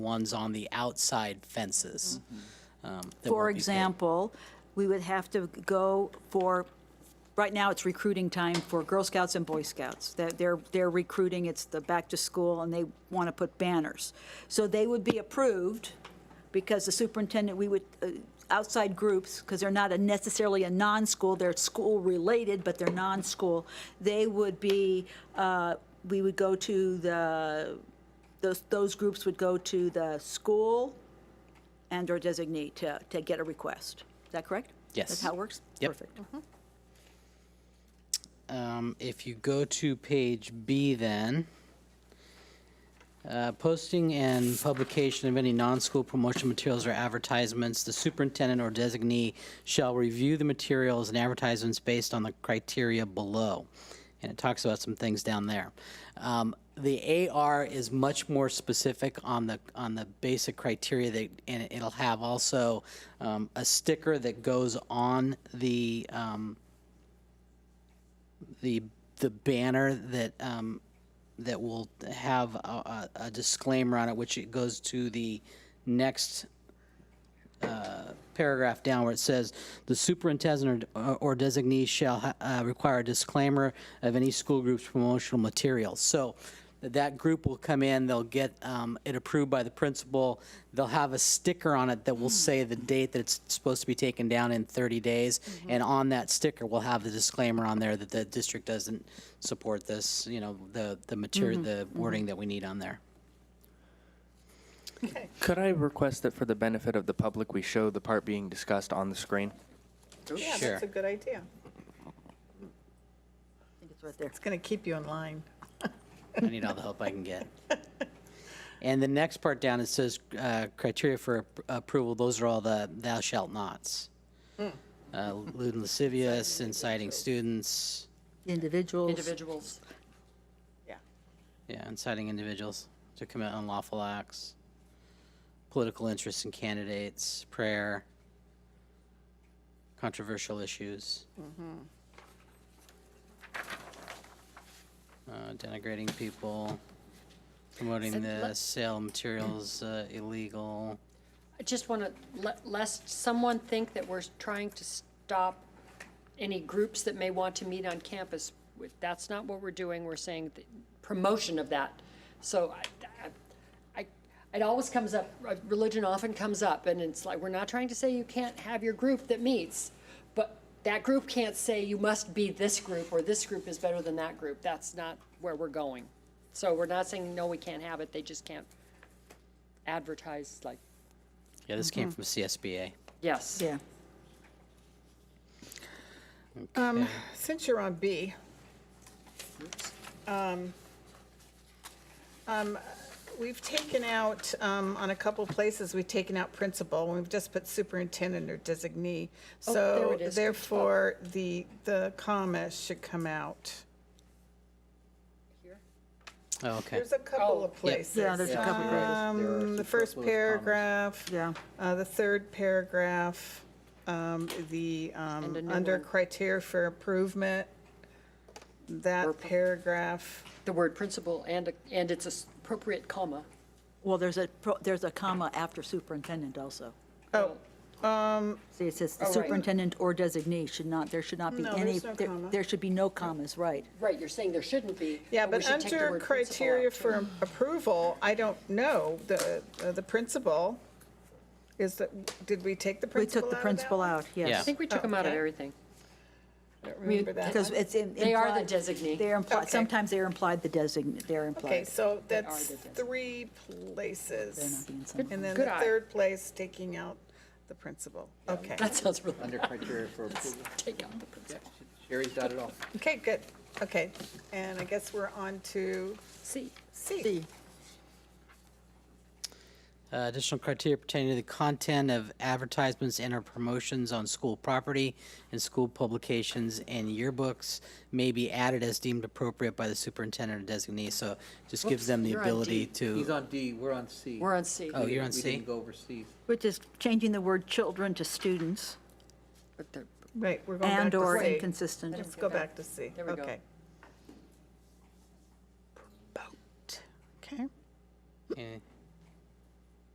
ones on the outside fences. um, that For won't be paid. example, we would have to go for, right now, it's recruiting time for Girl Scouts and Boy Scouts. They're- They're, they're recruiting, it's the back to school, and they want to put banners. So they would be approved, because the superintendent, we would, uh, outside groups, because they're not a necessarily a non-school, they're school-related, but they're non-school, they would be, uh, we would go to the, those, those groups would go to the school, and/or designate to, to get a request. Is that correct? Yes. That's how it works? Yep. Perfect. Um, if you go to page B then, uh, posting and publication of any non-school promotion materials or advertisements, the superintendent or designee shall review the materials and advertisements based on the criteria below. And it talks about some things down there. Um, the AR is much more specific on the, on the basic criteria that, and it'll have also, um, a sticker that goes on the, um, the the banner that um, that will have a, a, a disclaimer on it, which it goes to the next uh, paragraph down where it says the superintendent or, uh, or designee shall ha- uh, require a disclaimer of any school group's promotional materials. So that that group will come in, they'll get um, it approved by the principal. They'll have a sticker on it that will say the date that it's supposed to be taken down in 30 days. And on that sticker, we'll have the disclaimer on there that the district doesn't support this, you know, the, the material, the wording that we need on there. Could I request that for the benefit of the public, we show the part being discussed on the screen? Yeah, Sure. that's a good idea. I think it's right there. It's going to keep you in line. I need all the help I can get. And the next part down, it says uh, criteria for ap- approval, those are all the thou shalt nots. Uh, Lewd and lascivious, inciting students, Individuals. individuals. Yeah. yeah, inciting individuals to commit unlawful acts, political interests in candidates, prayer, controversial issues. Uh, Denigrating people, promoting the sale of materials uh, illegal. I just want to, lest someone think that we're trying to stop any groups that may want to meet on campus. We- That's not what we're doing. We're saying the promotion of that. So I- I, I, it always comes up, uh, religion often comes up, and it's like, we're not trying to say you can't have your group that meets, but that group can't say you must be this group, or this group is better than that group. That's not where we're going. So we're not saying, no, we can't have it. They just can't advertise like Yeah, this came from CSBA. Yes. Yeah. Since you're on B, um, um, we've taken out, um, on a couple places, we've taken out principal, and we've just put superintendent or designee. Oh, there So it is, page therefore, the, the comma should come out. Oh, okay. There's a couple of places. Yeah, there's a couple of places. Um, The first paragraph. Yeah. Uh, The third paragraph, um, the, um, And a new under one. criteria for improvement, that paragraph, The word principal and, a- and its appropriate comma. Well, there's a, pro- there's a comma after superintendent also. oh, See, it says the Oh, right. superintendent or designee should not, there should not be No, any. there's no there- comma. There should be no commas, right. Right, you're saying there shouldn't be. yeah, Oh, we but should take the under word principal criteria out. for approval, I don't know, the, uh, the principal, is that, did we take the We principal took the out of principal that one? out, I yes. think we took them out of Okay. everything. I don't remember that. Because it's in- They are the implied- designee. They're Okay. implied, sometimes they're implied the designee, they're Okay, implied. so That are that's the desi- three places. being some- And then Good the eye. third place, taking out the principal. Okay, That sounds really, Under criteria for approval. take out the principal. Sherry's dot it all. okay, good, okay. And I guess we're on to See, C. Uh, Additional criteria pertaining to the content of advertisements and or promotions on school property and school publications and yearbooks may be added as deemed appropriate by the superintendent or designee. So just gives them the you're on D. ability He's to, on D, we're on C. we're on C, Oh, you're on We C? didn't go over C. Which is changing the word children to students but they're- Right, we're going back and/or to C. inconsistent. Let's go back to C. There we go. Okay. Promote, okay. Okay,